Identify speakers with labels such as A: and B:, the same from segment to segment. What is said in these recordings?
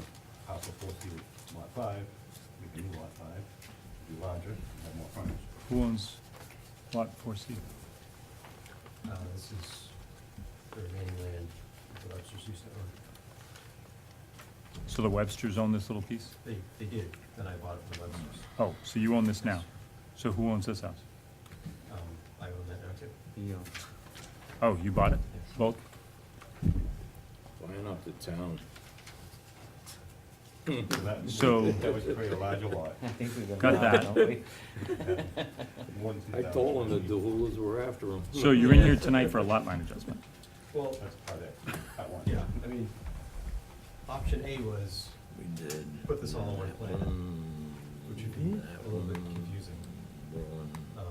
A: the four feet of lot five, we can do lot five, be larger, have more frontage.
B: Who owns lot four C?
A: Uh, this is the remaining land, the Webster's used to own.
B: So the Websters own this little piece?
A: They, they did, then I bought it from Webster's.
B: Oh, so you own this now? So who owns this house?
A: Um, I own that now too.
B: Oh, you bought it?
A: Yes.
B: Both?
C: Why not the town?
A: So that-
B: So-
A: That would create a larger lot,
D: I think we've been.
B: Got
D: wrong,
B: that.
D: don't we?
A: more than
C: I
A: 2,000
C: told them the
A: feet.
C: Doolas were after him.
B: So you're in here tonight for a lot line adjustment?
E: Well,
A: That's part of, that one.
E: yeah, I mean, option A was
C: We did. Hmm.
E: put this all in one plan, which would be a little bit confusing. Um,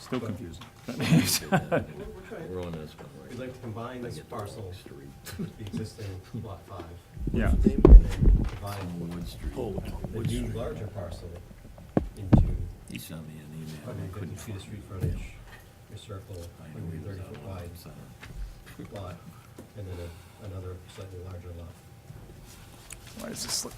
B: Still confusing.
E: we're- we're trying-
C: We're on this one, right?
E: We'd like to combine this parcel,
C: Street.
E: with the existing lot five,
B: Yeah,
E: and then divide
C: Wood Street.
E: the new larger parcel into
C: He sent me an email. and I
E: 150
C: couldn't
E: feet of street
C: find it.
E: frontage, your circle,
C: I knew he was
E: 130
C: out
E: foot
C: on
E: wide
C: the center.
E: lot, and then a- another slightly larger lot.
B: why does this look?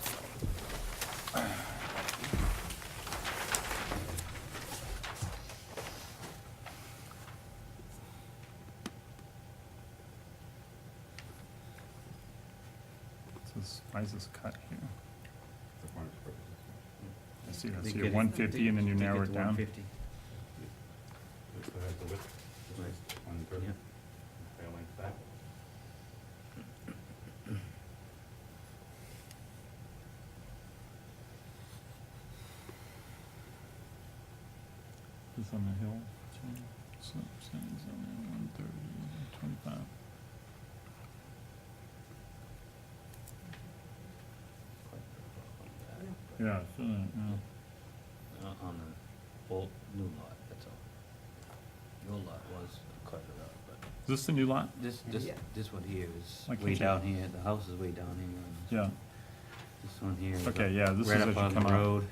B: This is- Why is this cut here?
A: For frontage purposes.
B: I see,
D: They
B: that's
D: get
B: your
D: it-
B: one fifty and then you
D: they- they
B: narrow
D: get
B: it
D: to
B: down.
D: 150.
A: That's the height of width, which is one thirty,
D: Yeah.
A: fair length back.
B: It's on the hill. So, so it's only one thirty, twenty-five. Yeah, it's, uh, yeah.
D: Uh, On the old, new lot, that's all. Your lot was cut it up, but
B: Is this the new lot?
D: this, this,
E: Yeah.
D: this one here is
B: Like
D: way
B: we-
D: down here, the house is way down here.
B: Yeah,
D: This one here. is up-
B: okay, yeah, this is
D: right
B: as
D: up
B: you
D: on the
B: come out.
D: road.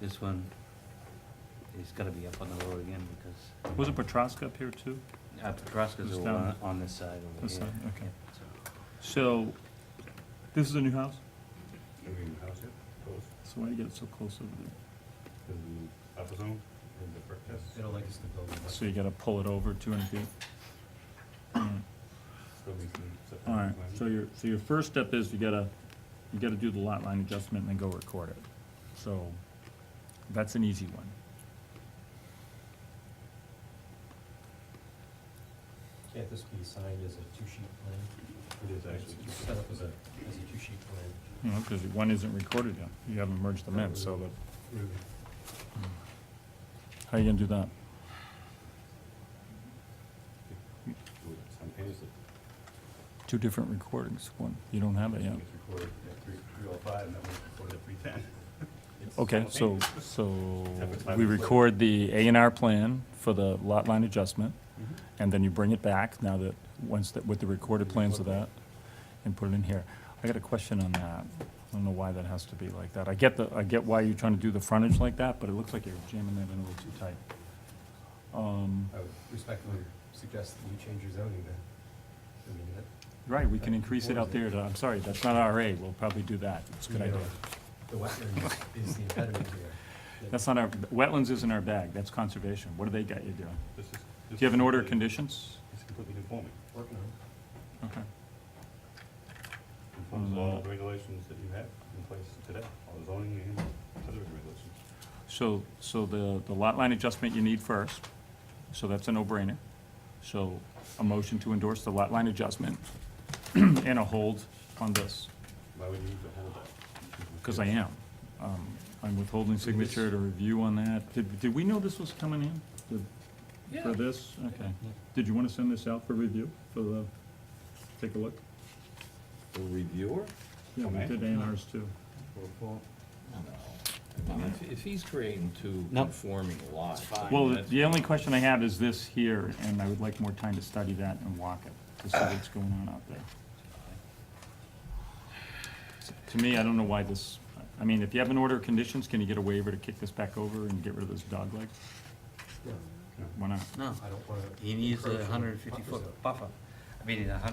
D: This one, it's gotta be up on the road again because.
B: Wasn't Petraska up here too?
D: Uh, Petrusca's
B: It's
D: over
B: down-
D: on, on this side over
B: This
D: here.
B: side, okay.
D: So-
B: So, this is a new house?
A: Are we in the house yet? Close?
B: So why do you get it so close over there?
A: Is the upper zone, in the brick test?
E: They don't like us to build much.
B: So you gotta pull it over two hundred feet? Mm.
A: Still needs some setback
B: All right,
A: requirement.
B: so your, so your first step is you gotta, you gotta do the lot line adjustment and then go record it. So, that's an easy one.
E: Can't this be signed as a two-sheet plan?
A: It is actually two
E: Set up as a, as a two-sheet plan.
B: You know, cause one isn't recorded yet, you haven't merged them in, so that, how you gonna do that?
A: Do it simultaneously.
B: Two different recordings, one, you don't have it yet.
A: It's recorded at three, three oh five, and that was recorded at three ten.
B: Okay, so, so
A: Have a plan
B: we
A: in place.
B: record the A and R plan for the lot line adjustment,
A: Mm-hmm.
B: and then you bring it back now that, once, that with the recorded plans of that, and put it in here. I got a question on that. I don't know why that has to be like that. I get the, I get why you're trying to do the frontage like that, but it looks like you're jamming that in a little too tight. Um,
E: I would respectfully suggest that you change your zoning then. I mean, that,
B: right, we can increase it out there to, I'm sorry, that's not RA, we'll probably do that. It's a good
E: you know,
B: idea.
E: The wetland is the impediment here.
B: That's not our, wetlands isn't our bag, that's conservation. What do they got you doing?
A: This is.
B: Do you have an order of conditions?
A: It's completely conforming.
E: Working on it.
B: Okay.
A: Conforms
B: Mm.
A: all the regulations that you have in place today, all the zoning and other regulations.
B: So, so the, the lot line adjustment you need first, so that's a no-brainer. So a motion to endorse the lot line adjustment and a hold on this,
A: Why would you need to hold that?
B: because I am. Um, I'm withholding signature to review on that. Did, did we know this was coming in? Did- For this? Okay. Did you want to send this out for review, for the, take a look?
C: The reviewer?
B: Yeah, we
A: Okay.
B: did A and Rs too.
A: oh
C: No. I mean, if- If he's creating two
D: No.
C: conforming lots. I mean,
B: Well,
C: that's-
B: the only question I have is this here, and I would like more time to study that and walk it, to see what's going on out there. To me, I don't know why this, I mean, if you have an order of conditions, can you get a waiver to kick this back over and get rid of this dog leg?
E: No,
B: Why not?
D: No,
E: I don't wanna.
D: he needs a
E: encroach on
D: hundred and fifty
E: buffer
D: foot
E: zone.
D: buffer. I mean, a hundred